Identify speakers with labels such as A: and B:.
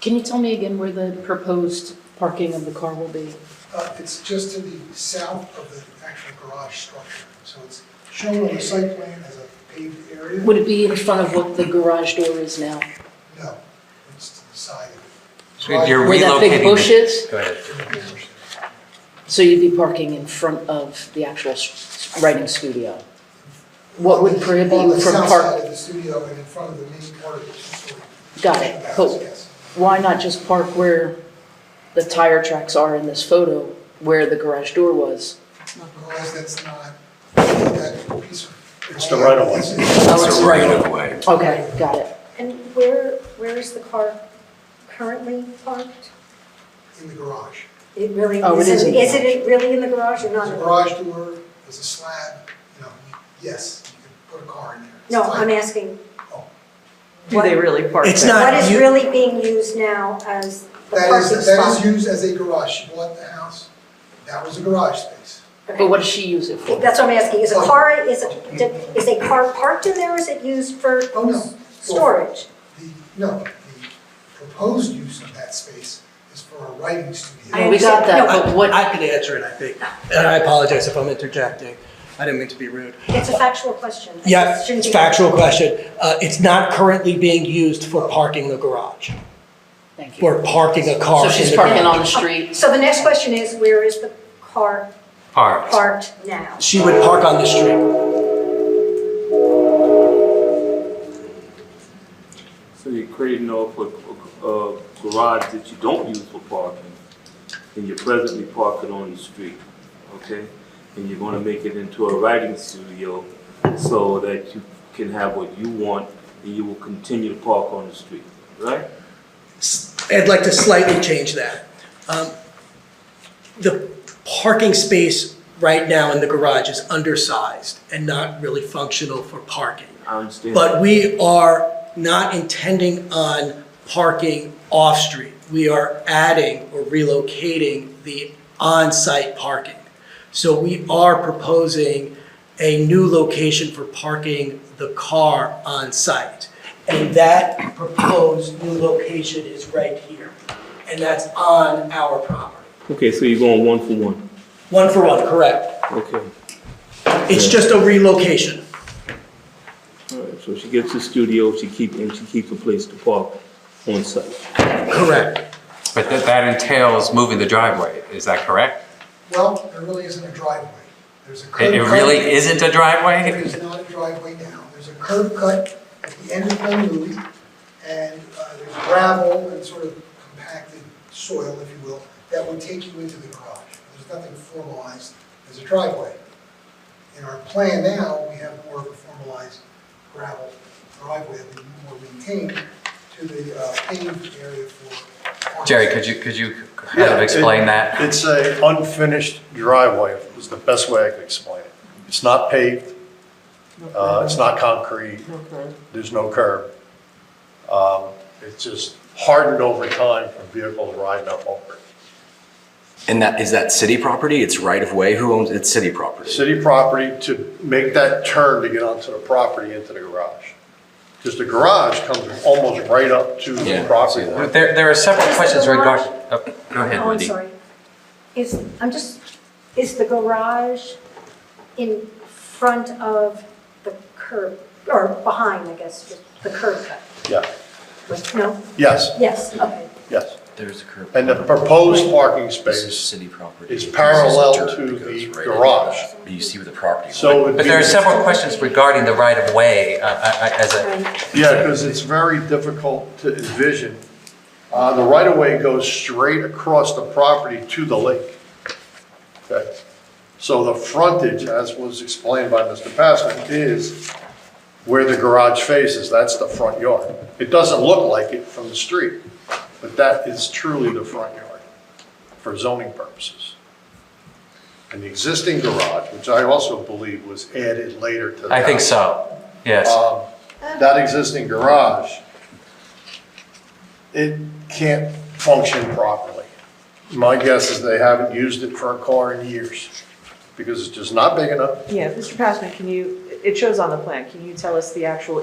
A: Can you tell me again where the proposed parking of the car will be?
B: Uh, It's just to the south of the actual garage structure, so it's shown on the site plan as a paved area.
A: Would it be in front of what the garage door is now?
B: No, it's to the side of
C: So you're
A: Where that
C: relocating
A: big
C: the-
A: bush is?
C: Go ahead.
B: it.
A: So you'd be parking in front of the actual s- writing studio? What would prohibit
B: On the
A: you from
B: south
A: park-
B: side of the studio and in front of the main part of the two-story.
A: Got it,
B: house,
A: but-
B: yes.
A: Why not just park where the tire tracks are in this photo, where the garage door was?
B: Because that's not, that piece of.
D: It's the right of way.
A: Oh,
C: It's a right of way.
A: Okay, got it.
E: And where, where is the car currently parked?
B: In the garage.
E: It really
A: Oh, it is in
E: isn't,
A: the
E: is it really in the garage or
B: There's a
E: not?
B: garage door, there's a slab, you know, yes, you can put a car in there. It's
E: No,
B: tight.
E: I'm asking,
F: Do they really park
G: It's
F: there?
G: not-
E: what is
G: you-
E: really being used now as the
B: That
E: parking
B: is, that is
E: spot?
B: used as a garage. She bought the house, that was a garage space.
A: But what does she use it for?
E: That's what I'm asking, is a car, is, a- is a car parked in there or is it used for
B: Oh, no.
E: storage?
B: The, no, the proposed use of that space is for a writing studio.
E: I
A: We got that,
E: understand.
A: but what,
G: I can answer it, I think. And I apologize if I'm interjecting. I didn't mean to be rude.
E: It's a factual question. It
G: Yeah,
E: shouldn't
G: it's
E: be-
G: factual question. Uh, It's not currently being used for parking the garage,
A: thank you.
G: or parking a car
A: So
G: in
A: she's
G: the
A: parking
G: garage.
A: on the street,
E: So the next question is, where is the car
C: Parks.
E: parked now?
G: She would park on the street.
H: So you're creating off a, a garage that you don't use for parking, and you're presently parking on the street, okay? And you're gonna make it into a writing studio so that you can have what you want, and you will continue to park on the street, right?
G: S- I'd like to slightly change that. Um, The parking space right now in the garage is undersized and not really functional for parking.
H: I understand.
G: But we are not intending on parking off-street. We are adding or relocating the on-site parking. So we are proposing a new location for parking the car on-site. And that proposed new location is right here. And that's on our property.
H: Okay, so you're going one for one,
G: One for one, correct.
H: okay.
G: It's just a relocation.
H: All right, so she gets the studio, she keep, and she keeps a place to park on site.
G: Correct.
C: But that, that entails moving the driveway, is that correct?
B: Well, there really isn't a driveway. There's a curb
C: It, it
B: cut.
C: really isn't a
B: There
C: driveway?
B: is not a driveway now. There's a curb cut at the end of Dunwoody, and uh, there's gravel and sort of compacted soil, if you will, that would take you into the garage. There's nothing formalized as a driveway. In our plan now, we have more of a formalized gravel driveway that we more maintained to the uh, paved area for.
C: Jerry, could you, could you kind of explain that?
D: It's a unfinished driveway, is the best way I could explain it. It's not paved, uh, it's not concrete, there's no curb. Um, It's just hardened over time from vehicles riding up over it.
I: And that, is that city property? It's right of way? Who owns, it's city property?
D: City property to make that turn to get onto the property into the garage. Because the garage comes almost right up to
I: Yeah, I
D: the
I: see
D: property
I: that.
D: line.
C: There, there are several
E: Is
C: questions
E: the garage-
C: regarding, oh, go ahead,
E: Oh, I'm
C: Wendy.
E: sorry. Is, I'm just, is the garage in front of the curb, or behind, I guess, the curb cut?
D: Yeah,
E: Like, No?
D: yes,
E: Yes, okay.
D: yes.
I: There's a curb.
D: And the proposed parking
I: This is
D: space
I: city property.
D: is parallel
I: This is dirt
D: to
I: that goes
D: the
I: right in.
D: garage.
I: But you see where the property.
D: So it would
C: But
D: be-
C: there are several questions regarding the right of way, uh, I- I- as a,
E: Right.
D: Yeah, because it's very difficult to envision. Uh, The right-of-way goes straight across the property to the lake. Okay? So the frontage, as was explained by Mr. Passman, is where the garage faces. That's the front yard. It doesn't look like it from the street, but that is truly the front yard for zoning purposes. And the existing garage, which I also believe was added later to the
C: I think
D: house,
C: so, yes.
D: um, That existing garage, it can't function properly. My guess is they haven't used it for a car in years, because it's just not big enough.
F: Yeah, Mr. Passman, can you, it shows on the plan, can you tell us the actual